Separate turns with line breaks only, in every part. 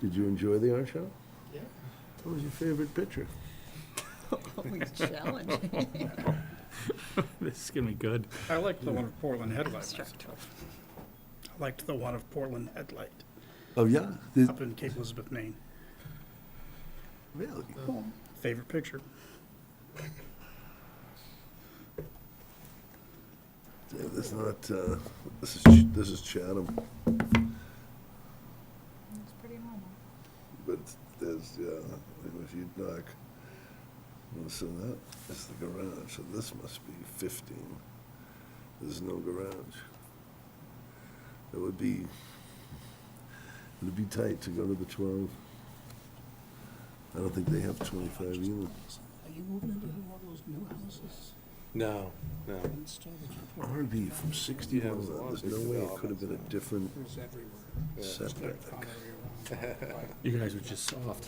Did you enjoy the art show?
Yeah.
What was your favorite picture?
Always challenging.
This is gonna be good.
I liked the one of Portland Headlight
Abstract.
myself. I liked the one of Portland Headlight
Oh, yeah, Did-
up in Cape Elizabeth, Maine.
really?
Favorite picture.
Yeah, This is not, uh, this is, Ch- this is Chatham,
It's pretty normal.
but there's, yeah, if you knock, well, so that is the garage, so this must be fifteen. There's no garage. It would be, it'd be tight to go to the twelve. I don't think they have twenty-five either.
Are you moving into one of those new houses
No, no.
in Sturbridge?
RV from sixty
Yeah, it
miles
was a
out,
lot of
there's no
big
way it could have been a different
developments,
There's everywhere.
Yeah.
setback.
You guys are just soft.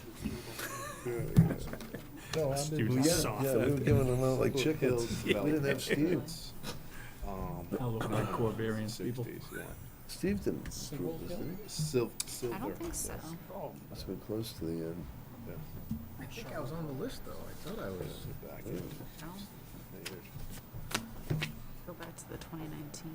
No,
Let's do the soft open.
giving them out
Little hills development.
Steve's.
Um,
All looking like core variants, people.
60s, yeah.
Steve didn't approve this, did he?
Sil-
I
silver.
don't think so.
oh,
It's been close to the end.
I think I was on the list, though. I thought I was.
Sit back in.
No, go back to the 2019.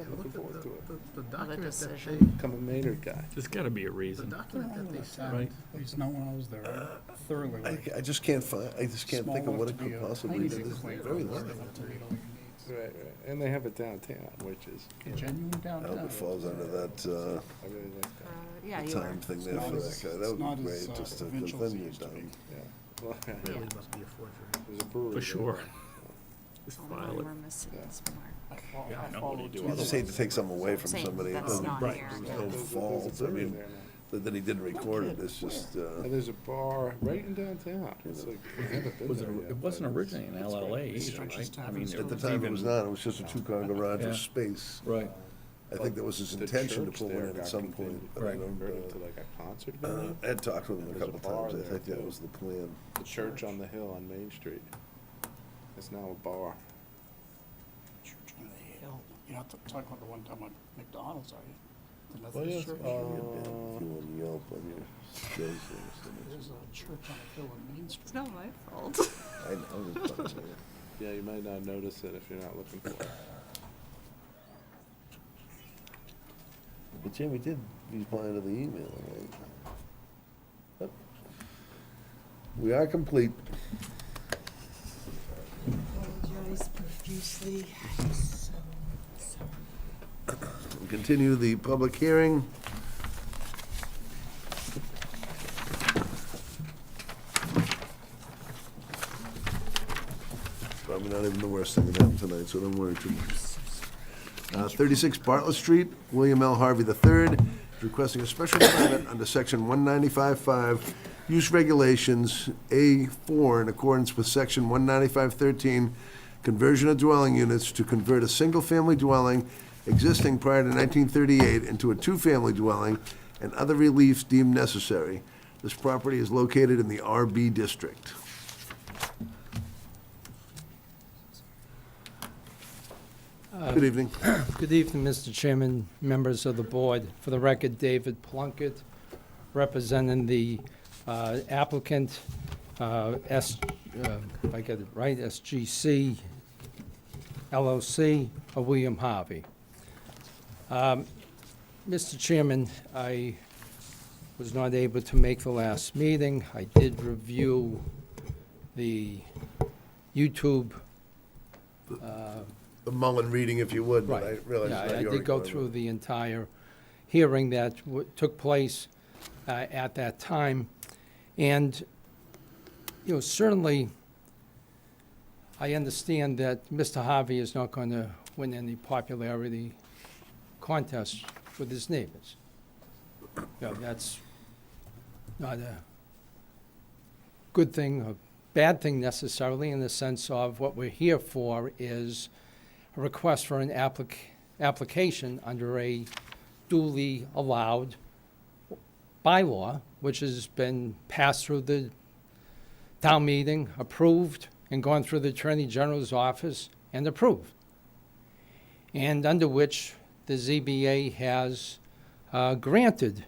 I
looking
looked at
forward
the,
to it.
the, the document that they,
decision.
Become a Maynard guy.
There's gotta be a
the
reason.
document that they signed.
Right.
At least not when I was there. I Thoroughly
I,
like.
I just can't find, I just can't think of what it could possibly be. This is very long.
Right, right. And they have it downtown, which is,
A genuine
I
Oh,
hope
downtown.
it falls under that,
I really like
Uh,
that.
Yeah,
uh,
you were.
time thing there for that guy. That
It's not
would be
as,
great,
uh,
just to, because
provincial as
then
it
you're
used to be.
done.
Yeah. Well,
Yeah.
Really must be a forgery.
There's a brewery.
For
there.
sure. Just
Only
file
one
it.
we're missing
Yeah.
is Mark.
Yeah, I know. What do you do
You just hate to take something away from
Same,
somebody. It
that's
doesn't-
not Right. here.
There's
Yeah.
no
There's a- there's a
faults, I
brewery
mean,
there now.
that that he didn't record it, it's just, uh,
And there's a bar right in downtown. It's like, I haven't been
Was it,
there yet,
it wasn't
but it's-
originally in LLA either, right? I mean, there
at the
was
time it
even-
was not, it was just a two-car garage
Yeah.
with space.
Right,
I think that was his
The
intention to
church
put one
there
in at
got
some point,
converted-
but I
Right.
don't,
Converted to
uh,
like a concert
uh,
venue.
Ed talked with him a
There's a
couple
bar
times, I
there,
think that
too.
was the plan.
The church on the hill on Main Street. It's now a bar.
Church on the hill. You're not talking about the one time at McDonald's, are you? The
Oh,
Methodist
yes.
church?
If you
Uh,
want to Yelp on your those things.
There's a church on the hill on Main Street.
It's not my fault.
I know, it's fun, yeah.
yeah, you might not notice it if you're not looking for it.
But Jimmy did reply to the email, right? Yep. We are complete.
Apologize profusely. I'm so sorry.
We'll Continue the public hearing. Probably not even the worst thing that happened tonight, so don't worry too much. Uh, 36 Bartlett Street, William L. Harvey III is requesting a special permit under Section 195.5 Use Regulations, A4, in accordance with Section 195.13, conversion of dwelling units to convert a single-family dwelling existing prior to 1938 into a two-family dwelling and other reliefs deemed necessary. This property is located in the RB District. Good evening.
Good evening, Mr. Chairman, members of the board. For the record, David Plunkett, representing the uh, applicant, uh, S, uh, if I get it right, SGC LLC of William Harvey. Um, Mr. Chairman, I was not able to make the last meeting. I did review the YouTube
The Mullen reading, if you would, but I
Right.
realize
Yeah,
it's not
I
your
did go
requirement.
through the entire hearing that w- took place uh, at that time. And, you know, certainly, I understand that Mr. Harvey is not going to win any popularity contest with his neighbors. You know, that's not a good thing, or bad thing necessarily, in the sense of what we're here for is a request for an applic- application under a duly allowed bylaw, which has been passed through the town meeting, approved, and gone through the Attorney General's office and approved. And under which the ZBA has uh, granted